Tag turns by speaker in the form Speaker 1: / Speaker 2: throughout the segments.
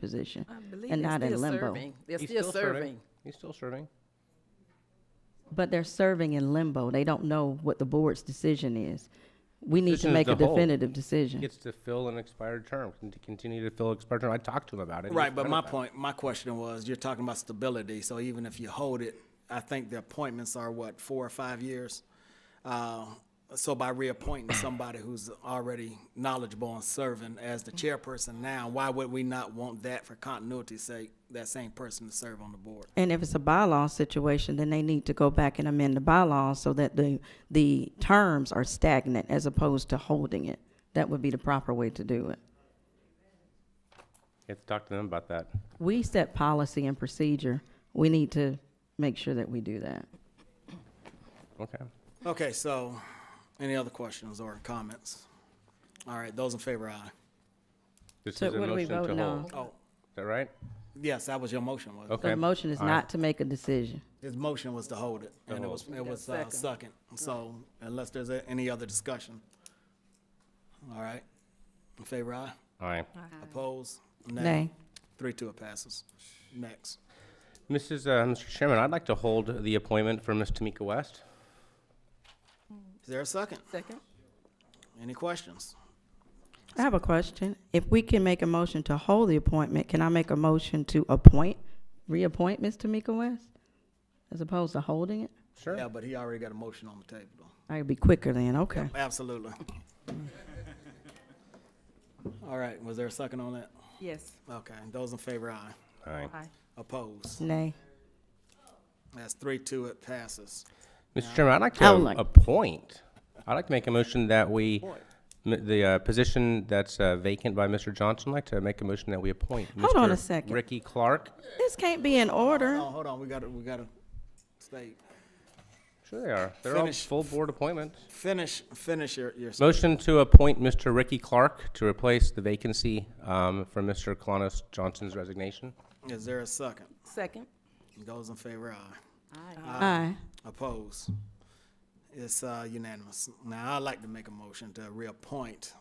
Speaker 1: position.
Speaker 2: I believe
Speaker 1: And
Speaker 2: they're
Speaker 1: not in
Speaker 2: still
Speaker 1: limbo.
Speaker 2: serving. They're
Speaker 3: He's
Speaker 2: still serving.
Speaker 3: He's still serving.
Speaker 1: But they're serving in limbo. They don't know what the board's decision is. We need to
Speaker 3: Decision is
Speaker 1: make a
Speaker 3: the whole.
Speaker 1: definitive decision.
Speaker 3: Gets to fill an expired term, can to continue to fill expired term. I talked to him about it. He was
Speaker 4: Right, but
Speaker 3: fine
Speaker 4: my
Speaker 3: with that.
Speaker 4: point, my question was, you're talking about stability, so even if you hold it, I think the appointments are what, four or five years? Uh, So by reappointing somebody who's already knowledgeable and serving as the chairperson now, why would we not want that for continuity's sake, that same person to serve on the board?
Speaker 1: And if it's a bylaw situation, then they need to go back and amend the bylaws so that the, the terms are stagnant as opposed to holding it. That would be the proper way to do it.
Speaker 3: You have to talk to them about that.
Speaker 1: We set policy and procedure. We need to make sure that we do that.
Speaker 3: Okay.
Speaker 4: Okay, so, any other questions or comments? All right, those in favor, aye.
Speaker 3: This
Speaker 1: So
Speaker 3: is a
Speaker 1: what are we
Speaker 3: motion to
Speaker 1: voting on?
Speaker 3: hold. Is
Speaker 4: Oh,
Speaker 3: that right?
Speaker 4: yes, that was your motion, was it?
Speaker 1: So
Speaker 3: Okay.
Speaker 1: the motion is
Speaker 3: All right.
Speaker 1: not to make a decision.
Speaker 4: His motion was to hold it, and it was, it was uh, second. So unless there's a- any other discussion. All right. In favor, aye.
Speaker 3: All right.
Speaker 4: Oppose?
Speaker 1: Nay.
Speaker 4: Three, two, it passes. Next.
Speaker 3: Mrs., uh, Mr. Chairman, I'd like to hold the appointment for Ms. Tamika West.
Speaker 4: Is there a second?
Speaker 2: Second?
Speaker 4: Any questions?
Speaker 1: I have a question. If we can make a motion to hold the appointment, can I make a motion to appoint, reappoint Ms. Tamika West? As opposed to holding it?
Speaker 3: Sure.
Speaker 4: Yeah, but he already got a motion on the table. though.
Speaker 1: I'd be quicker then, okay.
Speaker 4: Absolutely. All right, was there a second on that?
Speaker 2: Yes.
Speaker 4: Okay, those in favor, aye.
Speaker 3: All right.
Speaker 2: Aye.
Speaker 4: Oppose?
Speaker 1: Nay.
Speaker 4: That's three, two, it passes.
Speaker 3: Mr. Chairman, I'd like
Speaker 1: I would
Speaker 3: to
Speaker 1: like-
Speaker 3: appoint, I'd like to make a motion that we, m- the uh, position that's uh, vacant by Mr. Johnson, I'd like to make a motion that we appoint.
Speaker 1: Hold on a
Speaker 3: Mr.
Speaker 1: second.
Speaker 3: Ricky Clark.
Speaker 1: This can't be in order.
Speaker 4: Oh, hold on, we gotta, we gotta stay,
Speaker 3: Sure they are. They're all
Speaker 4: Finish.
Speaker 3: full board appointments.
Speaker 4: finish, finish your, your.
Speaker 3: Motion to appoint Mr. Ricky Clark to replace the vacancy um, from Mr. Colonis Johnson's resignation.
Speaker 4: Is there a second?
Speaker 2: Second?
Speaker 4: Those in favor, aye.
Speaker 1: Aye.
Speaker 4: Oppose? It's uh, unanimous. Now, I'd like to make a motion to reappoint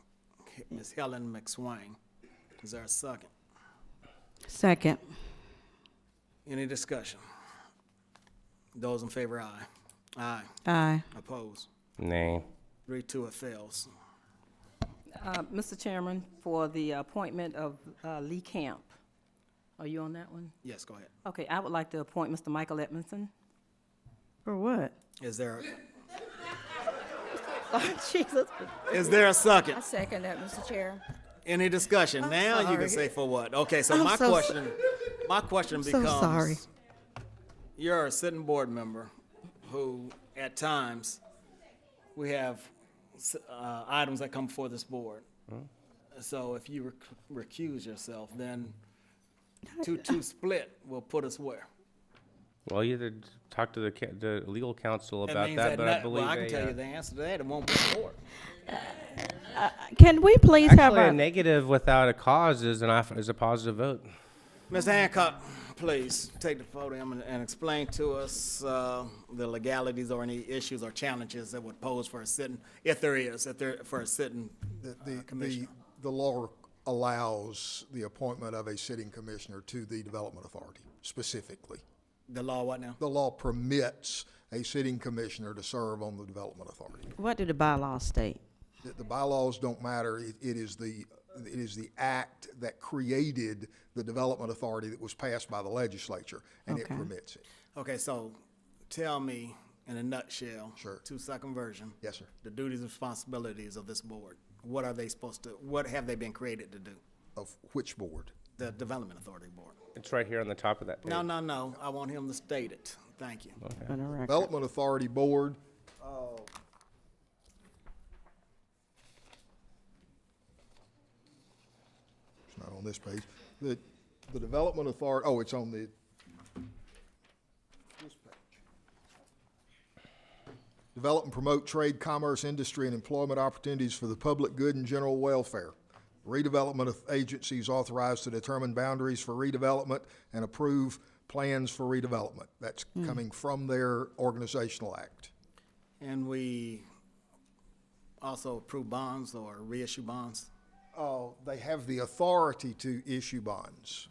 Speaker 4: Ms. Helen McSwain. Is there a second?
Speaker 1: Second.
Speaker 4: Any discussion? Those in favor, aye. Aye.
Speaker 1: Aye.
Speaker 4: Oppose?
Speaker 3: Nay.
Speaker 4: Three, two, it fails.
Speaker 2: Uh, Mr. Chairman, for the appointment of uh, Lee Camp, are you on that one?
Speaker 4: Yes, go ahead.
Speaker 2: Okay, I would like to appoint Mr. Michael Edmondson.
Speaker 1: For what?
Speaker 4: Is there,
Speaker 2: Jesus.
Speaker 4: is there a second?
Speaker 5: I second that, Mr. Chair.
Speaker 4: Any discussion? Now you can
Speaker 1: sorry.
Speaker 4: say for what? Okay, so
Speaker 1: I'm
Speaker 4: my
Speaker 1: so so-
Speaker 4: question, my question
Speaker 1: so
Speaker 4: becomes.
Speaker 1: sorry.
Speaker 4: You're a sitting board member who, at times, we have s- uh, items that come before this board.
Speaker 1: Hmm?
Speaker 4: So if you rec- recuse yourself, then two-two split will put us where?
Speaker 3: Well, you had to talk to the, ca- the legal counsel
Speaker 4: That
Speaker 3: about
Speaker 4: means
Speaker 3: that, but I
Speaker 4: not- well,
Speaker 3: believe
Speaker 4: I can
Speaker 3: they,
Speaker 4: tell
Speaker 3: uh,
Speaker 4: you the answer to that, it won't be four.
Speaker 1: Can we please have
Speaker 3: Actually, a
Speaker 1: a,
Speaker 3: negative without a cause is an, off- is a positive vote.
Speaker 4: Ms. Hancock, please take the podium and- and explain to us uh, the legalities or any issues or challenges that would pose for a sitting, if there is, if there, for a sitting
Speaker 6: The- the-
Speaker 4: commissioner.
Speaker 6: The, the law allows the appointment of a sitting commissioner to the Development Authority specifically.
Speaker 4: The law what now?
Speaker 6: The law permits a sitting commissioner to serve on the Development Authority.
Speaker 1: what do the bylaws state?
Speaker 6: The, the bylaws don't matter. It, it is the, it is the act that created the Development Authority that was passed by the legislature, and it
Speaker 1: Okay.
Speaker 6: permits it.
Speaker 4: Okay, so tell me in a nutshell.
Speaker 6: Sure.
Speaker 4: Two-second version.
Speaker 6: Yes, sir.
Speaker 4: The duties and responsibilities of this board. What are they supposed to, what have they been created to do?
Speaker 6: Of which board?
Speaker 4: The Development Authority Board.
Speaker 3: It's right here on the top of that page.
Speaker 4: No, no, no, I want him to state it. Thank you.
Speaker 1: On the record.
Speaker 6: Development Authority Board, uh, it's not on this page. The, the Development Authority, oh, it's on the, this page. Develop and promote trade, commerce, industry, and employment opportunities for the public good and general welfare. Redevelopment of agencies authorized to determine boundaries for redevelopment and approve plans for redevelopment. That's coming from their organizational act.
Speaker 4: And we also approve bonds or reissue bonds?
Speaker 6: uh, they have the authority to issue bonds.